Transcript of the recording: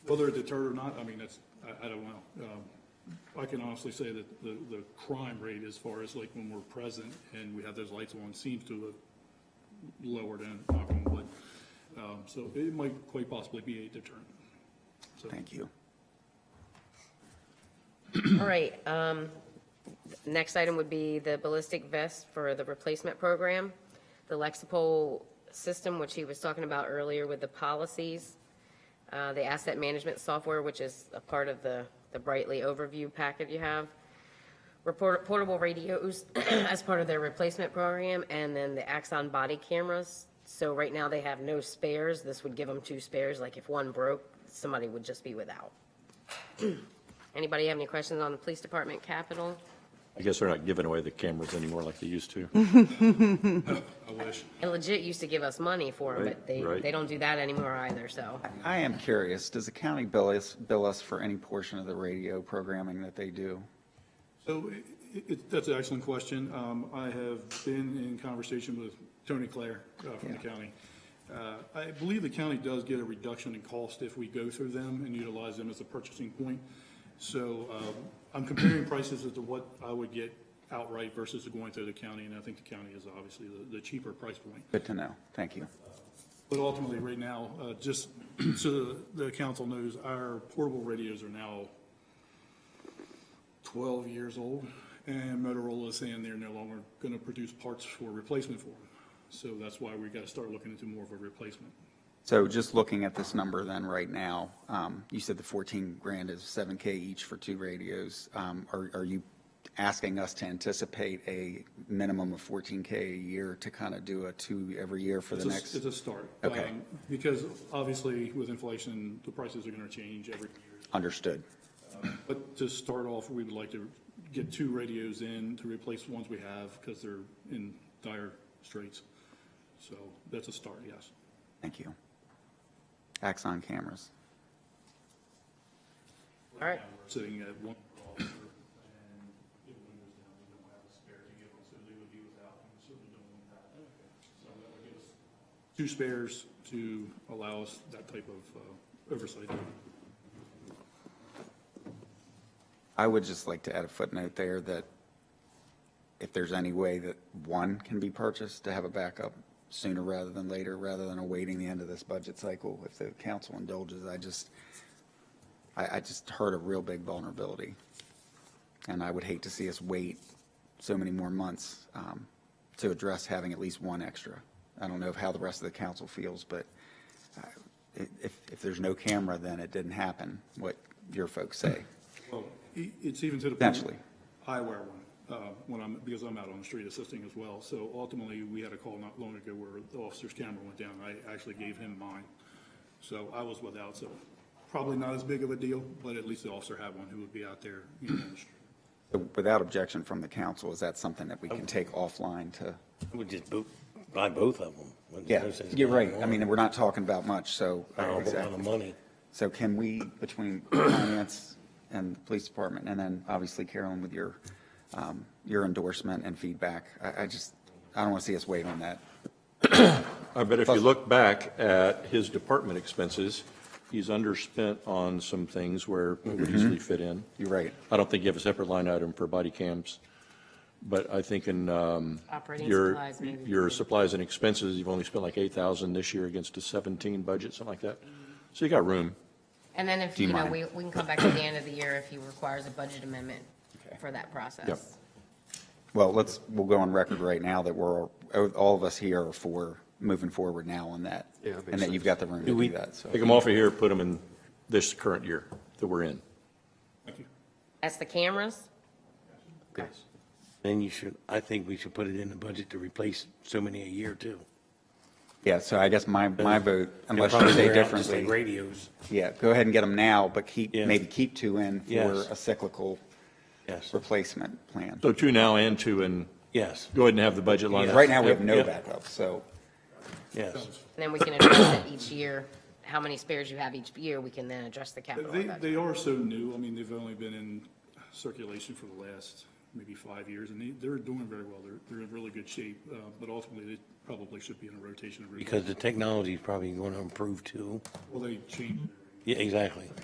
Whether it deterred or not, I mean, that's, I, I don't know. Um, I can honestly say that the, the crime rate as far as like when we're present and we have those lights on seems to have lowered and, knock on wood. Um, so it might quite possibly be a deterrent. So- Thank you. All right, um, next item would be the ballistic vest for the replacement program. The Lexipol system, which he was talking about earlier with the policies. Uh, the asset management software, which is a part of the, the Brightly overview packet you have. Report, portable radios as part of their replacement program, and then the Axon body cameras. So right now they have no spares. This would give them two spares, like if one broke, somebody would just be without. Anybody have any questions on the police department capital? I guess they're not giving away the cameras anymore like they used to. Mm-hmm. I wish. It legit used to give us money for them, but Right, they, right. they don't do that anymore either, so. I am curious, does the county bill us, bill us for any portion of the radio programming that they do? So i- i- it, that's an excellent question. Um, I have been in conversation with Tony Claire uh, from the Yeah. county. Uh, I believe the county does get a reduction in cost if we go through them and utilize them as a purchasing point. So um, I'm comparing prices as to what I would get outright versus going through the county, and I think the county is obviously the- the cheaper price point. Good to know. Thank you. But ultimately, right now, uh, just so the council knows, our portable radios are now 12 years old, and Motorola is saying they're no longer going to produce parts for replacement for them. So that's why we got to start looking into more of a replacement. So just looking at this number then right now, um, you said the 14 grand is 7K each for two radios. Um, Are, are you asking us to anticipate a minimum of 14K a year to kind of do a two every year for the It's a- next? It's a start. Okay. Um, Because obviously, with inflation, the prices are going to change every year. Understood. But to start off, we would like to get two radios in to replace ones we have because they're in dire straits. So that's a start, yes. Thank you. Axon cameras. All right, sitting at one officer and if one goes down, we don't have a spare to give them, so they would be without, and so we don't want that. So that would give us two spares to allow us that type of uh, oversight. I would just like to add a footnote there that if there's any way that one can be purchased to have a backup sooner rather than later, rather than awaiting the end of this budget cycle, if the council indulges, I just, I, I just heard a real big vulnerability. And I would hate to see us wait so many more months um, to address having at least one extra. I don't know of how the rest of the council feels, but uh, i- if, if there's no camera, then it didn't happen, what your folks say. Well, i- it's even to the. point- Potentially. I wear one, uh, when I'm, because I'm out on the street assisting as well. So ultimately, we had a call not long ago where the officer's camera went down. I actually gave him mine. So I was without, so probably not as big of a deal, but at least the officer had one who would be out there, you know, on the street. Without objection from the council, is that something that we Oh. can take offline to? I would just bo- buy both of them. Wouldn't Yeah, those things you're be right. I one? mean, we're not talking about much, so. Not a whole lot of Exactly. money. So can we, between finance and the police department, and then obviously Carolyn with your, um, your endorsement and feedback, I, I just, I don't want to see us wait on that. I bet Uh, if you look back at his department expenses, he's underspent on some things where it would easily fit in. Mm-hmm. You're right. I don't think you have a separate line item for body cams, but I think in um, Operating your, supplies, maybe. your supplies and expenses, you've only spent like 8,000 this year against a 17 budget, something like that. So you got room. and then if, Do you you know, mind? we, we can come back at the end of the year if he requires a budget amendment for that process. Well, let's, we'll go on record right now that we're, all all of us here are for moving forward now on that. Yeah, that makes And that you've got the room to do that, so. Take them off of here, put them in this current year that we're in. Thank you. That's the cameras? Yes. Then you should, I think we should put it in the budget to replace so many a year too. Yeah, so I guess my, my vote, unless you Probably say wear out just differently. Like radios, Yeah, go ahead and get them now, but keep, Yeah. maybe keep two in for Yes. a cyclical yes, replacement plan. So two now and two in, yes, go ahead and have the budget line. Yeah. item. Right now, we have Yep, no yep. backup, so, yes. And then we can address it each year, how many spares you have each year, we can then address the capital They, budget. they are so new. I mean, they've only been in circulation for the last maybe five years, and they, they're doing very well. They're, they're in really good shape, uh, but ultimately, they probably should be in a rotation. of- Because the technology is probably going to improve too. Well, they change. Yeah, exactly.